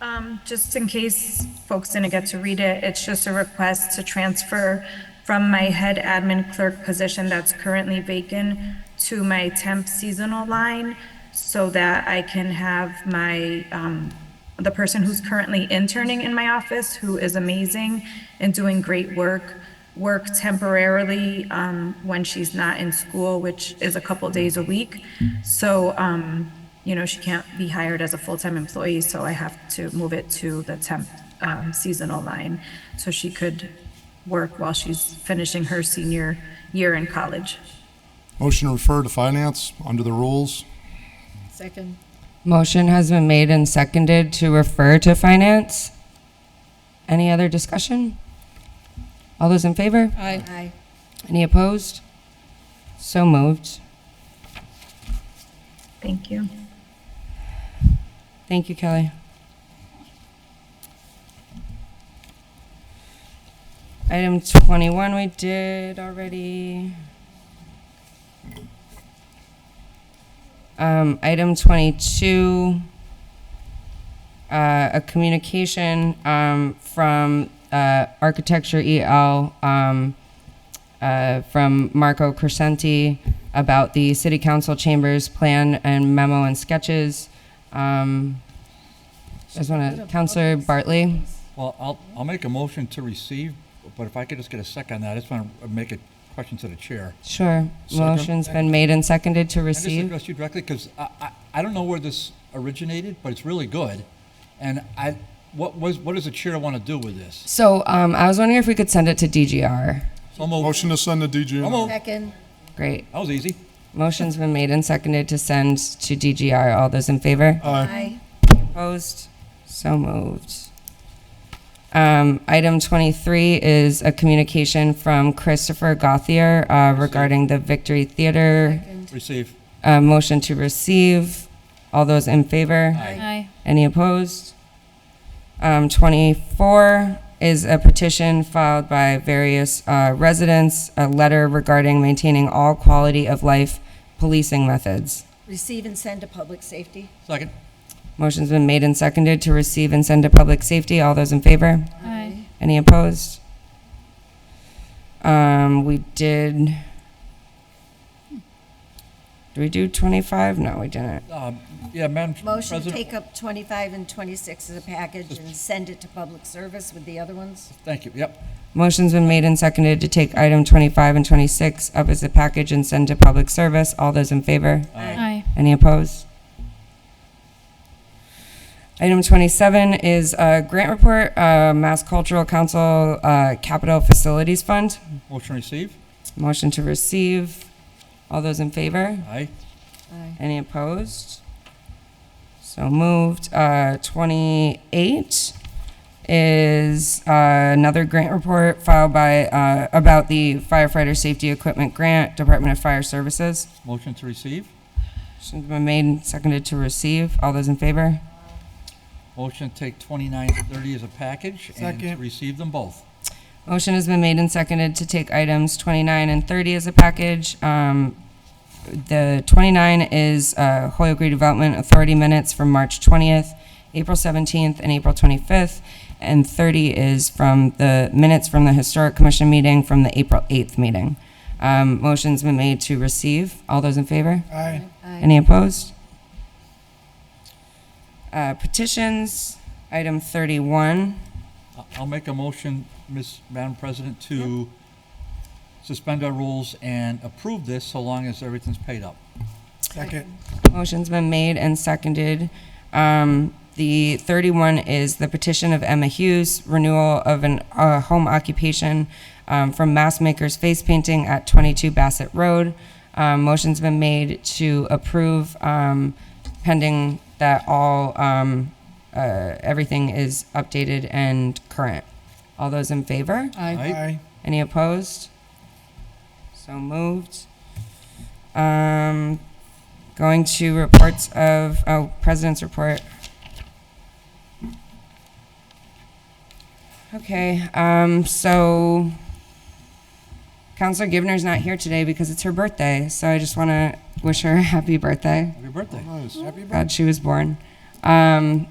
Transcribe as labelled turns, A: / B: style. A: Um, just in case folks didn't get to read it, it's just a request to transfer from my head admin clerk position that's currently vacant to my temp seasonal line so that I can have my, um, the person who's currently interning in my office, who is amazing and doing great work, work temporarily, um, when she's not in school, which is a couple days a week. So, um, you know, she can't be hired as a full-time employee, so I have to move it to the temp um, seasonal line so she could work while she's finishing her senior year in college.
B: Motion to refer to finance under the rules.
C: Second.
D: Motion has been made and seconded to refer to finance. Any other discussion? All those in favor?
C: Aye. Aye.
D: Any opposed? So moved.
A: Thank you.
D: Thank you, Kelly. Item 21, we did already. Um, Item 22, uh, a communication um, from uh, Architecture EL um, uh, from Marco Crescenti about the City Council Chambers Plan and Memo and Sketches. Um, I just want to, Counselor Bartley?
E: Well, I'll, I'll make a motion to receive, but if I could just get a second on that, I just want to make a question to the chair.
D: Sure. Motion's been made and seconded to
E: Can I just
D: receive.
E: address you directly? Because I, I, I don't know where this originated, but it's really good. And I, what was, what does the chair want to do with this?
D: So um, I was wondering if we could send it to DGR.
E: So moved.
B: Motion to send to DG.
E: So moved.
C: Second.
D: Great.
E: That was easy.
D: Motion's been made and seconded to send to DGR. All those in favor?
C: Aye.
D: Opposed? So moved. Um, item 23 is a communication from Christopher Gothier uh, regarding the Victory Theater
E: Receive.
D: Uh, motion to receive. All those in favor?
C: Aye.
D: Any opposed? Um, 24 is a petition filed by various uh, residents, a letter regarding maintaining all quality of life policing methods.
C: Receive and send to public safety.
E: Second.
D: Motion's been made and seconded to receive and send to public safety. All those in favor?
C: Aye.
D: Any opposed? Um, we did. Did we do 25? No, we didn't.
E: Um, yeah, Madam
C: Motion to
E: President.
C: take up 25 and 26 as a package and send it to public service with the other ones.
E: Thank you. Yep.
D: Motion's been made and seconded to take item 25 and 26 up as a package and send to public service. All those in favor?
C: Aye.
D: Any opposed? Item 27 is a grant report, uh, Mass Cultural Council uh, Capital Facilities Fund.
E: Motion receive.
D: Motion to receive. All those in favor?
E: Aye.
C: Aye.
D: Any opposed? So moved. Uh, 28 is uh, another grant report filed by, uh, about the firefighter safety equipment grant, Department of Fire Services.
E: Motion to receive.
D: Motion's been made and seconded to receive. All those in favor?
E: Motion to take twenty-nine and thirty as a package and to
B: Second.
E: receive them both.
D: Motion has been made and seconded to take items 29 and 30 as a package. Um, The 29 is uh, Hoyle Green Development Authority minutes from March 20th, April 17th, and April 25th. And 30 is from the minutes from the Historic Commission meeting from the April 8th meeting. Um, Motion's been made to receive. All those in favor?
B: Aye.
D: Any opposed? Uh, Petitions, item 31.
E: I- I'll make a motion, Ms. Madam President, to suspend our rules and approve this so long as everything's paid up.
B: Second.
D: Motion's been made and seconded. Um, the thirty-one is the petition of Emma Hughes, renewal of an, uh, home occupation, um, from Mass Makers Face Painting at twenty-two Bassett Road. Um, motion's been made to approve, um, pending that all, um, uh, everything is updated and current. All those in favor?
E: Aye.
D: Any opposed? So moved. Um, going to reports of, oh, President's report. Okay, um, so Counselor Givner's not here today because it's her birthday, so I just want to wish her a happy birthday.
E: Happy birthday.
B: Nice.
D: God, she was born. Um,